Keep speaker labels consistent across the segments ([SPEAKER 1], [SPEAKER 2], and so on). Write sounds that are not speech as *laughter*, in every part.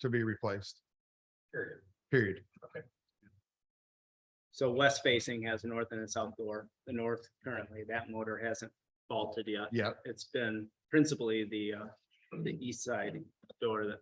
[SPEAKER 1] to be replaced,
[SPEAKER 2] period.
[SPEAKER 1] period.
[SPEAKER 3] So west facing has a north and a south door. The north currently, that motor hasn't faulted yet.
[SPEAKER 1] Yeah,
[SPEAKER 3] It's been principally the, uh, the east side door that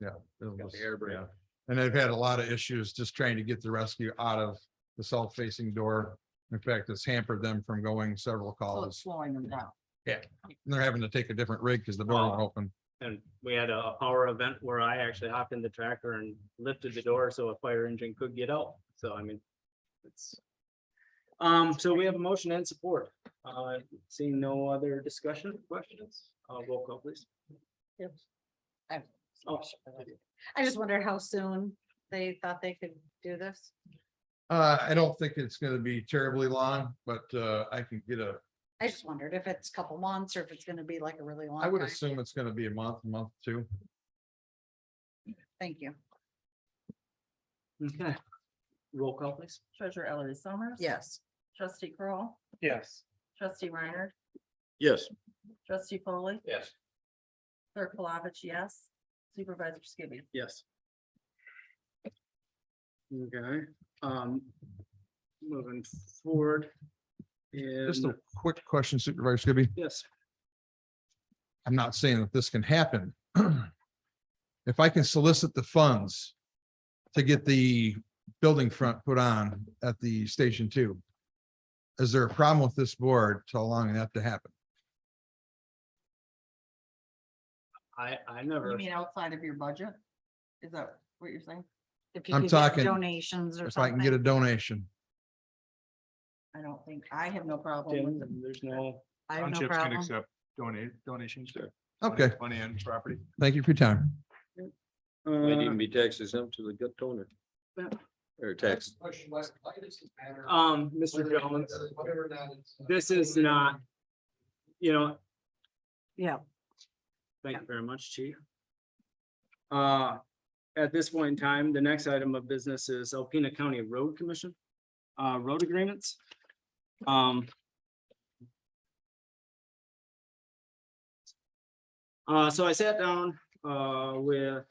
[SPEAKER 1] it
[SPEAKER 3] got
[SPEAKER 1] was-
[SPEAKER 3] the air brake.
[SPEAKER 1] yeah. And I've had a lot of issues just trying to get the rescue out of the south-facing door. In fact, it's hampered them from going several
[SPEAKER 3] Oh,
[SPEAKER 4] So it's
[SPEAKER 1] calls.
[SPEAKER 4] slowing them down.
[SPEAKER 1] And They're having to take a different rig because the door won't
[SPEAKER 3] Oh.
[SPEAKER 1] open.
[SPEAKER 3] And we had a power event where I actually hopped in the tractor and lifted the door so a fire engine could get out. So I mean, it's. Um, so we have a motion and support. Uh, seeing no other discussion, questions, uh, roll call please. Oh.
[SPEAKER 4] I just wonder how soon they thought they could do this.
[SPEAKER 1] Uh, I don't think it's gonna be terribly long, but uh, I can get a,
[SPEAKER 4] I just wondered if it's a couple months or if it's gonna be like a really long.
[SPEAKER 1] I would
[SPEAKER 4] time.
[SPEAKER 1] assume it's gonna be a month, month two.
[SPEAKER 4] Thank you.
[SPEAKER 3] Okay. Roll call please.
[SPEAKER 5] Treasurer Ellery Summers.
[SPEAKER 4] Yes.
[SPEAKER 5] Trustee Kroll,
[SPEAKER 3] Yes.
[SPEAKER 5] trustee Reiner,
[SPEAKER 6] Yes,
[SPEAKER 5] trustee Foley,
[SPEAKER 3] Yes.
[SPEAKER 5] clerk Palovich, yes. Supervisor Skibby.
[SPEAKER 3] Yes. Okay, um. Moving forward.
[SPEAKER 1] Just
[SPEAKER 3] And,
[SPEAKER 1] a quick question Supervisor Skibby.
[SPEAKER 3] yes,
[SPEAKER 1] I'm not saying that this can happen. *clears throat* If I can solicit the funds to get the building front put on at the station two. Is there a problem with this board to allowing that to happen?
[SPEAKER 3] I, I never,
[SPEAKER 5] You mean outside of your budget? Is that what you're saying?
[SPEAKER 4] If you
[SPEAKER 1] I'm
[SPEAKER 4] could get
[SPEAKER 1] talking-
[SPEAKER 4] Donations or
[SPEAKER 1] If I can get
[SPEAKER 4] something.
[SPEAKER 1] a donation,
[SPEAKER 5] I don't think, I have no problem with it.
[SPEAKER 3] Tim, there's no,
[SPEAKER 4] I have no
[SPEAKER 7] Townships can
[SPEAKER 4] problem.
[SPEAKER 7] accept donate, donations. to
[SPEAKER 1] okay,
[SPEAKER 7] Money and property.
[SPEAKER 1] thank you for your time.
[SPEAKER 6] might even
[SPEAKER 3] uh,
[SPEAKER 6] be taxed exempt to the gut toner.
[SPEAKER 3] Yeah.
[SPEAKER 6] Or tax.
[SPEAKER 3] um, Mr. Jones, this is not, you know.
[SPEAKER 4] Yeah.
[SPEAKER 3] Thank you very much, chief. Uh, at this point in time, the next item of business is Alpena County Road Commission, uh, road agreements. Um. Uh, so I sat down, uh, with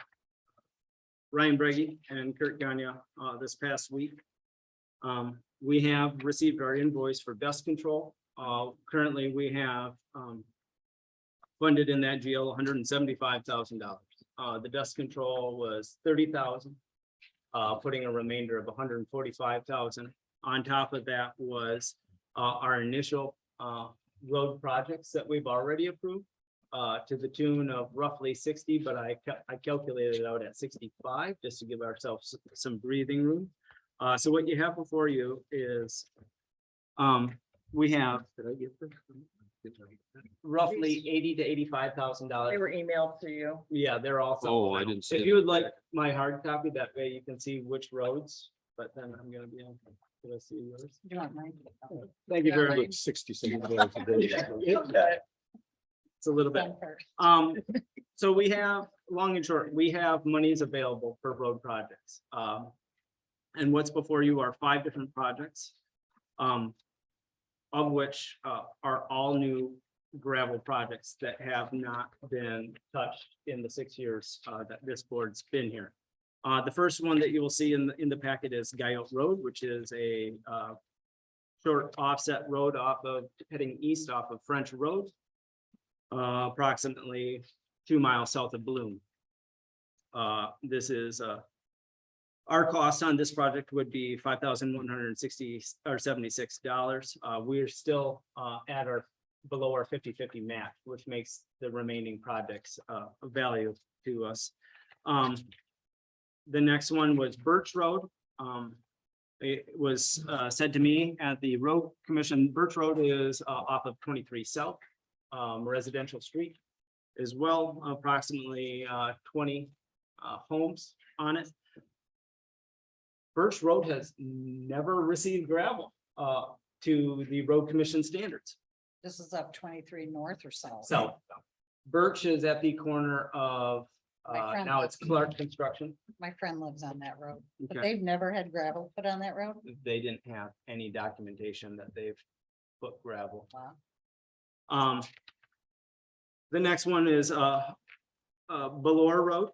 [SPEAKER 3] Ryan Brady and Kurt Gagne, uh, this past week. Um, we have received our invoice for dust control. Uh, currently, we have, um, funded in that GL hundred and seventy-five thousand dollars. Uh, the dust control was thirty thousand, uh, putting a remainder of $145,000. On top of that was, uh, our initial, uh, road projects that we've already approved, uh, to the tune of roughly sixty, but I ca- I calculated it out at sixty-five, just to give ourselves some breathing room. Uh, so what you have before you is, um, we have roughly eighty to eighty-five thousand dollars.
[SPEAKER 5] They were emailed to you.
[SPEAKER 3] Yeah, they're all.
[SPEAKER 6] Oh, I didn't see
[SPEAKER 3] If
[SPEAKER 6] it.
[SPEAKER 3] you would like my hard copy, that way you can see which roads, but then I'm gonna be on, can I see yours?
[SPEAKER 4] Do you want mine?
[SPEAKER 3] Thank you very much. It's a little bit. Um, so we have, long and short, we have monies available for road projects. Um, and what's before you are five different projects. Um, of which, uh, are all new gravel projects that have not been touched in the six years, uh, that this board's been here. Uh, the first one that you will see in, the in the packet is Guyot Road, which is a, uh, short offset road off of, heading east off of French Road uh, approximately two miles south of Bloom. Uh, this is, uh, our cost on this project would be five thousand one hundred and sixty or seventy-six dollars. Uh, we're still, uh, at our, below our 50-50 match, which makes the remaining projects, uh, of value to us. Um, the next one was Birch Road. Um, it was, uh, said to me at the road commission, Birch Road is, uh, off of twenty-three South um, residential street as well, approximately, uh, twenty, uh, homes on it. Birch Road has never received gravel, uh, to the road commission standards.
[SPEAKER 4] This is up twenty-three north or south.
[SPEAKER 3] So Birch is at the corner of,
[SPEAKER 4] My
[SPEAKER 3] uh,
[SPEAKER 4] friend
[SPEAKER 3] now
[SPEAKER 4] lives-
[SPEAKER 3] it's Clark Construction.
[SPEAKER 4] My friend lives on that road, but
[SPEAKER 3] Okay.
[SPEAKER 4] they've never had gravel put on that road.
[SPEAKER 3] They didn't have any documentation that they've put gravel.
[SPEAKER 4] Wow.
[SPEAKER 3] Um. The next one is, uh, uh, Belor Road,